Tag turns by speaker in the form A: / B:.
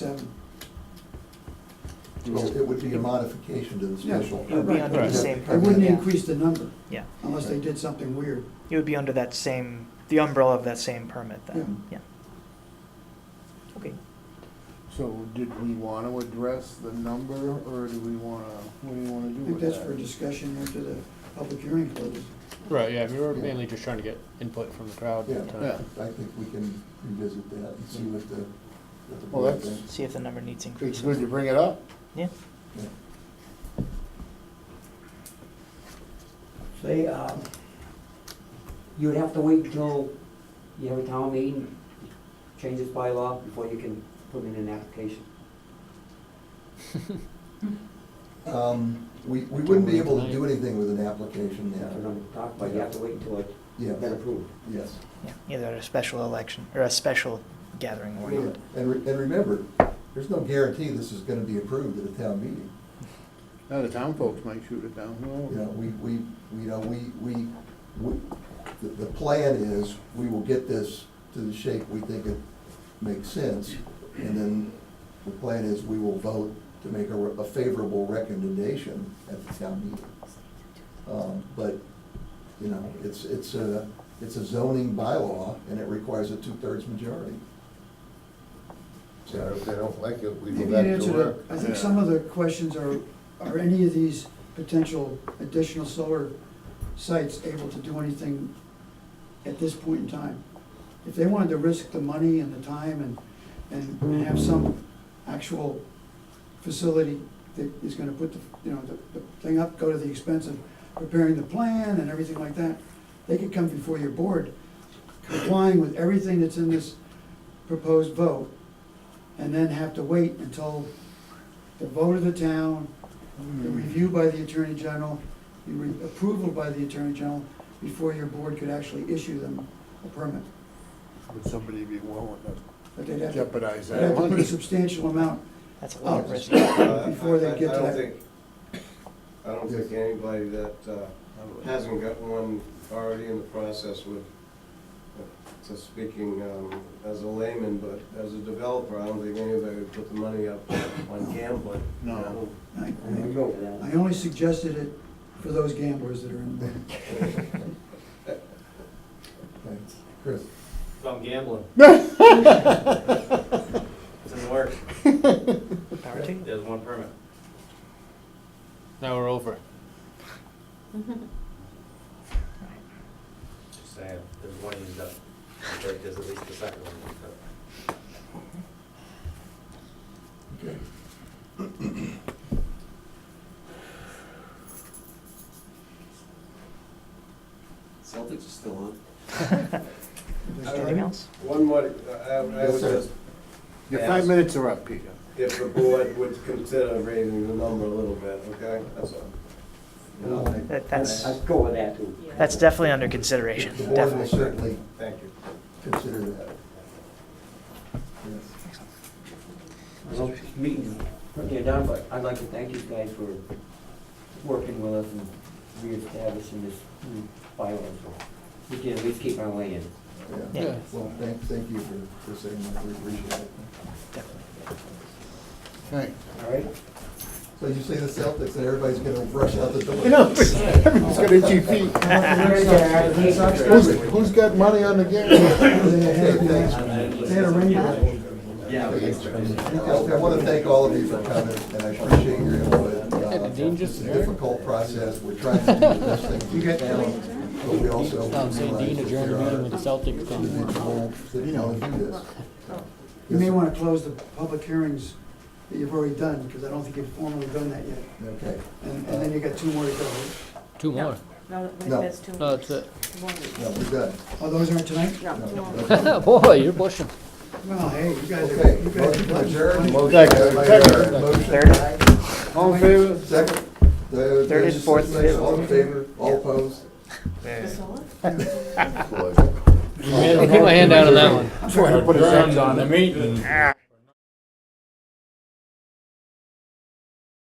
A: seven.
B: Well, it would be a modification to the special.
C: It would be
A: Right.
C: under the
B: Right.
C: same
A: It
C: permit,
A: wouldn't
C: yeah.
A: increase the number
C: Yeah,
A: unless they did something weird.
C: it would be under that same, the umbrella of that same permit then,
D: Mm-hmm.
C: yeah. Okay,
D: So did we want to address the number, or do we want to, what do you want to
A: I
D: do
A: think
D: with
A: that's for
D: that?
A: discussion after the public hearing closes.
E: Right, yeah, we were
B: Yeah.
E: mainly just trying to get input from the crowd.
B: Yeah,
E: to-
D: Yeah.
B: I think we can revisit that and see what the, what the
D: Well,
B: board
D: that's-
B: thinks.
C: see if the number needs
D: It's good
C: increases.
D: you bring it up.
C: Yeah,
B: Yeah.
F: They, uh, you'd have to wait until you have a town meeting, change this bylaw before you can put in an application.
B: Um, we, we wouldn't be able to do anything with an application
F: That's what
B: now.
F: I'm talking about, you have to wait until it's been
B: Yeah,
F: approved.
B: yes.
C: yeah, either at a special election or a special gathering or
B: Yeah.
C: whatever.
B: And, re- and remember, there's no guarantee this is gonna be approved at a town meeting.
D: Now, the town folks might shoot it down,
B: You
D: who
B: know,
D: knows?
B: we, we, you know, we, we, we- the, the plan is, we will get this to the shape we think it makes sense. And then the plan is, we will vote to make a, re- a favorable recommendation at the town meeting. Um, But, you know, it's, it's a, it's a zoning bylaw, and it requires a two-thirds majority.
G: Yeah, if they don't like it, we
A: Maybe you
G: go back to
A: answered
G: work.
A: it. I think
D: Yeah.
A: some of the questions are, are any of these potential additional solar sites able to do anything at this point in time? If they wanted to risk the money and the time and, and- and have some actual facility that is gonna put the, you know, the, the thing up, go to the expense of preparing the plan and everything like that, they could come before your board complying with everything that's in this proposed vote, and then have to wait until the vote of the town, the
B: Mm-hmm.
A: review by the attorney general, the re- approval by the attorney general, before your board could actually issue them a permit.
D: Would somebody be willing to
A: But they'd have to,
D: jeopardize
A: they'd have to
D: that
A: put a
D: money?
A: substantial amount,
C: That's a
D: Oh,
C: lot of risk.
G: Uh,
A: Before they
G: I- I-
A: get
G: I
A: to
G: don't
A: that.
G: think- I don't think anybody that uh, hasn't got one already in the process would, uh, so speaking um, as a layman, but as a developer, I don't think anybody would put the money up on gambling. you
D: No.
G: know?
A: I,
G: We
F: Go
G: don't-
F: for that.
A: I only suggested it for those gamblers that are in there.
B: Thanks. Chris?
H: I'm gambling.
E: uh,
H: It's in the works.
C: Power to you.
H: There's one permit.
E: Now we're over.
H: Just saying, there's one used up. I think There's at least the second one used up.
B: Okay.
G: Celtics are still on.
C: Anything else?
G: One more, I- I I
B: Yes,
G: would
B: sir.
G: just
D: Your five minutes are up, Peter.
G: if the board would consider raising the number a little bit, okay? That's all.
B: Uh,
C: That, that's,
F: Let's go with that too.
C: that's definitely under consideration,
B: The board will
C: definitely.
B: certainly
G: Thank you.
B: consider that. Yes.
F: I hope this meeting's nearly done, but I'd like to thank you guys for working with us and reestablishing this new bylaw. so We can at least keep our way in.
C: Yeah.
B: Yeah, well, thank, thank you for, for saying that, we appreciate it.
D: Thanks.
F: All right?
B: So you say the Celtics, and everybody's gonna rush out the door.
D: You know, everyone's got itchy feet. Who's, who's got money on the game?
B: Hey, thanks.
A: They had a rain delay.
B: I want to thank all of you for coming, and I appreciate your input. Uh,
E: Did Dean just
B: It's a difficult process, we're trying to do the best thing we can, but we also
E: I'm saying Oh, Um, Dean
B: realize
E: adjourned the meeting with the
B: that
E: Celtics
B: there are
E: on.
B: individuals that don't do this.
A: You may wanna close the public hearings that you've already done, because I don't think you've formally done that yet,
B: Okay,
A: and, and then you got two more to go.
E: Two more.
I: No, wait,
B: No.
I: that's two.
E: No, that's it.
I: One.
B: no, we're done.
A: Oh, those aren't tonight?
I: No, two more.
E: Boy, you're pushing.
A: Well, hey, you guys are,
B: Okay,
A: you guys
B: motion
A: are.
B: adjourned.
D: Second.
B: Motion.
C: Third.
D: All in favor?
B: Second. Third
C: Third and fourth.
B: All in favor, all opposed?
I: The solar?
E: I put my hand down on that one.
D: That's why I put his hands on him.
E: meeting.